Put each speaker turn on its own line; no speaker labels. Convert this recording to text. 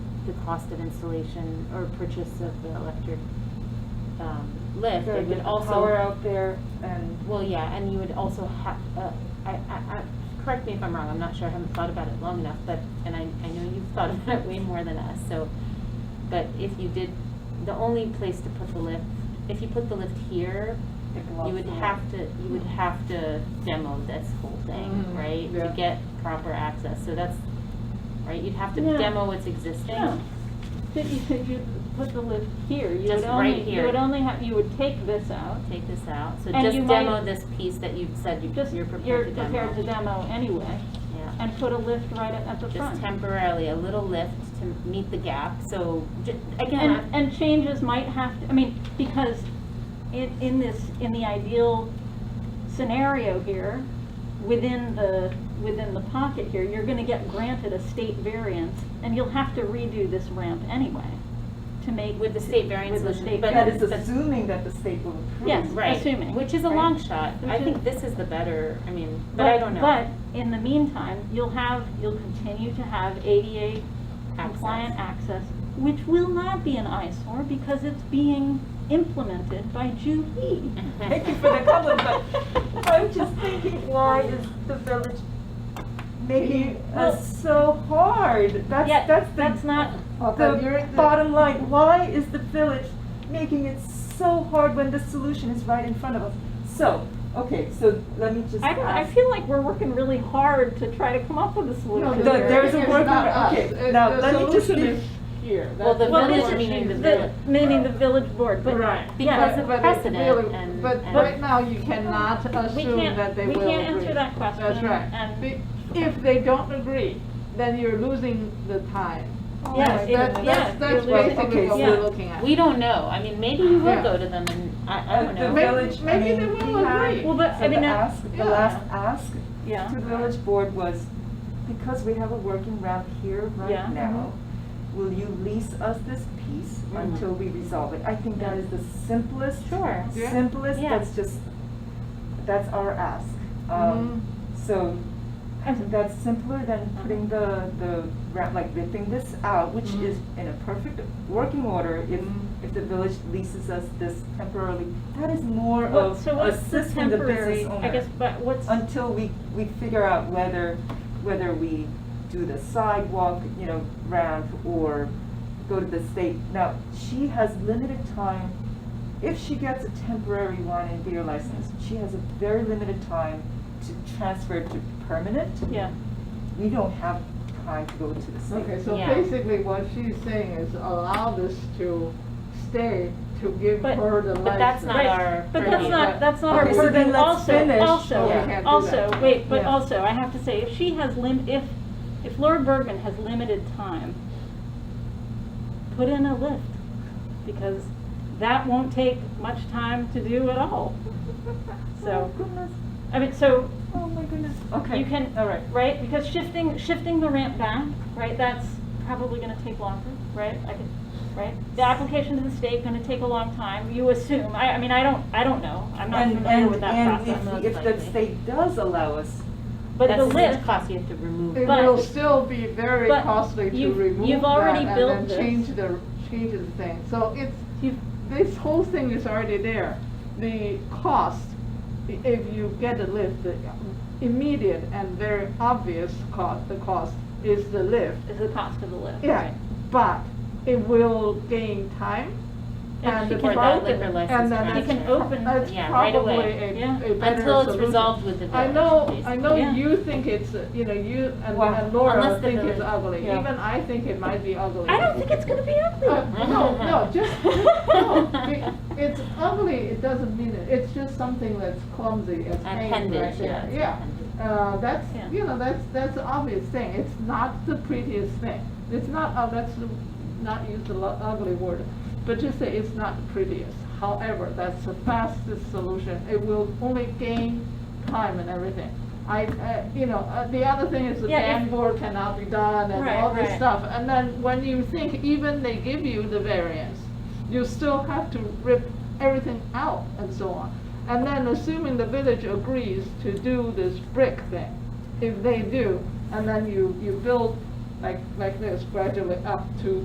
the cost of installation or purchase of the electric um, lift,
Gotta
it
get
would
the Power
also,
out there and.
well, yeah, and you would also have, uh, I, I, I, correct me if I'm wrong, I'm not sure, I haven't thought about it long enough, but, and I, I know you've thought about it way more than us, so, but if you did, the only place to put the lift, if you put the lift here,
it
you
blocks
would
the light.
have to, you would have to demo this whole thing,
Mhm.
right?
Yeah.
To get proper access, so that's, right, you'd have to
Yeah.
demo what's existing.
Yeah. That you could, you put the lift here, you
Just
would
right
only, you
here.
would only have, you would take this out.
Take this out, so
And
just
you
demo
might-
this piece that you said you,
Just,
you're prepared to demo.
demo anyway,
Yeah,
and put a lift right at at the front.
just temporarily, a little lift to meet the gap, so, ju- again,
And, and changes might have, to I mean, because in, in this, in the ideal scenario here, within the, within the pocket here, you're gonna get granted a state variance, and you'll have to redo this ramp anyway, to make.
With the state variance,
With the
which-
state
but-
That
variance.
is assuming that the state will approve.
Yes.
right,
assuming,
which is a
right?
long shot, I
Which
think
is-
this is the better, I mean, but I don't know.
But in the meantime, you'll have, you'll continue to have ADA compliant access, which will not be an eyesore because it's being implemented by Juhi.
Thank you for the comment, but I'm just thinking, why is the village making
Well-
us so hard? That's,
Yeah,
that's the.
that's not,
The bottom line, why is the village making it so hard when the solution is right in front of us? So, okay, so let me just
I don't, I
ask.
feel like we're working really hard to try to come up with a
No,
solution
the-
here.
there's a
it's
workaround.
not us.
Okay,
Uh,
now
the
let me just
solution
give-
is Here.
Well, the
That's
Well,
what
this
village,
we're
meaning the
choosing.
village.
The, meaning the village board, but,
Right.
yeah.
Because of
But it
precedent
really-
and-
But
and-
right now, you cannot
We
assume that
can't,
they
we
will agree.
can't answer that question.
That's right.
And,
Be- If they don't agree, then you're losing the time.
Oh
yes,
That-
it- yeah.
That's, that's
you're losing-
basically what
yeah.
we're looking at.
We don't know, I mean, maybe you will
Yeah.
go to them and, I, I
Uh,
don't
the
know.
May-
village, I
maybe
mean,
they will
we had-
agree.
Well, but,
So
I mean, uh,
the
that-
ask, the
yeah.
last ask to
yeah,
the village board was, because we have a working ramp here
Yeah.
right now, will you lease us this piece
Mhm.
until we resolve it? I think that is the simplest.
Sure.
Yeah.
Simplest,
Yeah.
that's just, that's our ask.
Mhm.
Um, So that's simpler than putting the, the, ra- like ripping this out, which
Mm-hmm.
Mhm.
is in a perfect working order if,
Mhm.
if the village leases us this temporarily. That is more
What-
of
so what's the
assisting uh, the business
temporary,
owner
I guess, but what's,
until we, we figure out whether, whether we do the sidewalk, you know, ramp or go to the state. Now, she has limited time, if she gets a temporary wine and beer license, she has a very limited time to transfer it to permanent.
yeah,
We don't have time to go to the state.
Um, Okay, so
Yeah.
basically what she's saying is allow this to stay to give
But-
her the license.
but that's not
Right,
our
but
purview.
that's not, that's not our
Okay, so then
purview,
let's
also,
finish.
Oh, we
also,
can't do
also,
that.
wait, but
Yeah.
also, I have to say, if she has lim, if, if Laura Bergman has limited time, put in a lift, because that won't take much time to do at all. So,
Oh, goodness,
I mean, so,
oh my goodness, okay.
You can-
All right.
right, because shifting, shifting the ramp back, right, that's probably gonna take longer, right? I could, right? The application to the state gonna take a long time, you assume, I, I mean, I don't, I don't know, I'm not
And-
familiar
and-
with that process.
And if, if the
likely.
state does allow us,
But the
That's
lift,
huge cost you have to remove.
It
But-
will still be very
but
costly to
you've-
remove
you've already
that and
built
then
this.
change the, change the thing. So it's,
you've,
this whole thing is already there. The cost, i- if you get a lift, the immediate and very obvious cost, the cost is the lift.
is the cost of the lift,
Yeah,
right?
but it will gain time
And
and
she
the
can
For that
vote
liquor
problem,
that-
license
and then
She
transfer.
can open,
it's
Yeah, right
probably
away.
a,
Yeah.
a better solution.
Until it's resolved with the
I
village,
know, I
basically.
know
Yeah.
you think it's, uh, you know, you and
Well,
and
unless
Laura
the
think it's
village-
ugly,
yeah.
even I think it might be ugly.
I don't think it's gonna be ugly.
Uh, No, no, just, no, be- it's ugly, it doesn't mean it, it's just something that's clumsy, it's paint right
Appendage, yeah.
there,
it's
yeah.
appendage.
Uh, that's,
Yeah.
you know, that's, that's the obvious thing, it's not the prettiest thing, it's not, uh, let's not use the lo- ugly word, but just say it's not the prettiest. However, that's the fastest solution, it will only gain time and everything. I, uh, you know, uh, the other thing is the
Yeah, if-
dashboard cannot be done and
Right,
all this
right.
stuff, and then when you think even they give you the variance, you still have to rip everything out and so on. And then assuming the village agrees to do this brick thing, if they do, and then you, you build like, like this gradually up to